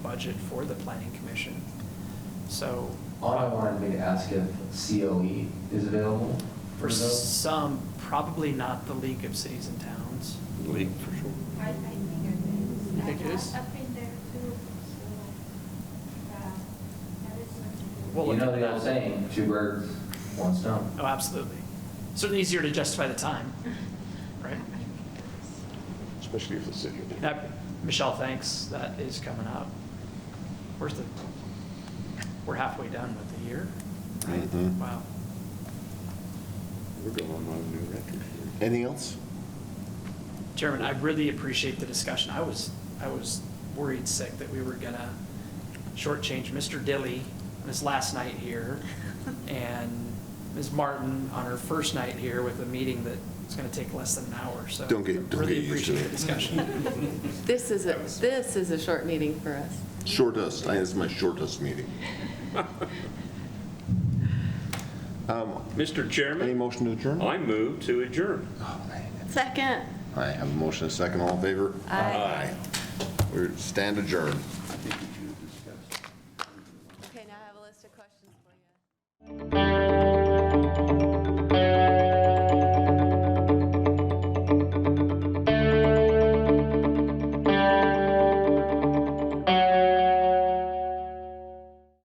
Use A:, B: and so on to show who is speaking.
A: budget for the planning commission. So
B: All I wanted me to ask if COE is available for
A: for
B: those.
A: some, probably not the League of Cities and Towns.
C: League for sure.
D: I, I think it is.
A: You think it
D: I-
A: is?
D: I've been there too, so, uh, that is something.
A: Well,
B: You
A: look
B: know
A: into
B: the old
A: that.
B: saying, two birds, one stone.
A: Oh, absolutely. Certainly easier to justify the time, right?
C: Especially if the city.
A: Now, Michelle, thanks, that is coming up. Where's the, we're halfway done with the year, right?
C: Mhm.
A: Wow.
C: We're going on a new record. Anything else?
A: Chairman, I really appreciate the discussion. I was, I was worried sick that we were gonna shortchange Mr. Dilly on his last night here and Ms. Martin on her first night here with a meeting that is gonna take less than an hour, so.
C: Don't get- don't
A: really
C: get used to
A: appreciate
C: it.
A: the discussion.
E: This is a, this is a short meeting for us.
F: Shortest, I- it's my shortest meeting.
G: Mr.
F: Um, Any
G: Chairman,
F: motion to adjourn?
G: I move to adjourn.
E: Second.
F: I have a motion, a second, all in favor?
E: Aye.
F: We stand adjourned.
E: Okay, now I have a list of questions for you.